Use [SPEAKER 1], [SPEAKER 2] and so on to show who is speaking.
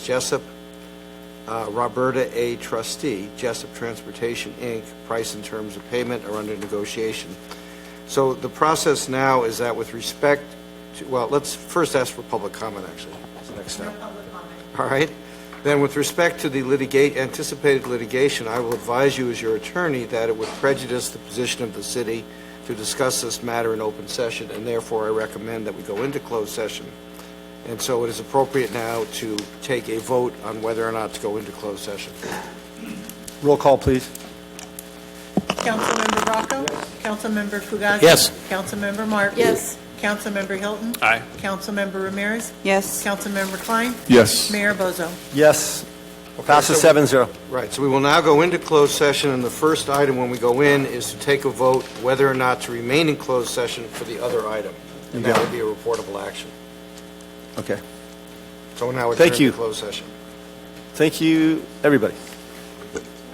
[SPEAKER 1] Jessup, uh, Roberta A. Trustee, Jessup Transportation, Inc., price and terms of payment are under negotiation. So the process now is that with respect to, well, let's first ask for public comment, actually, is the next step. All right? Then with respect to the litigate, anticipated litigation, I will advise you as your attorney that it would prejudice the position of the city to discuss this matter in open session, and therefore I recommend that we go into closed session. And so it is appropriate now to take a vote on whether or not to go into closed session.
[SPEAKER 2] Roll call, please.
[SPEAKER 3] Councilmember Rocco? Councilmember Fugazi?
[SPEAKER 2] Yes.
[SPEAKER 3] Councilmember Martin?
[SPEAKER 4] Yes.
[SPEAKER 3] Councilmember Hilton?
[SPEAKER 5] Aye.
[SPEAKER 3] Councilmember Ramirez?
[SPEAKER 4] Yes.
[SPEAKER 3] Councilmember Klein?
[SPEAKER 5] Yes.
[SPEAKER 3] Mayor Bozo?
[SPEAKER 2] Yes. Passes seven zero.
[SPEAKER 1] Right, so we will now go into closed session, and the first item when we go in is to take a vote whether or not to remain in closed session for the other item. And that would be a reportable action.
[SPEAKER 2] Okay.
[SPEAKER 1] So now we're
[SPEAKER 2] Thank
[SPEAKER 1] turning to
[SPEAKER 2] you.
[SPEAKER 1] closed session.
[SPEAKER 2] Thank you, everybody.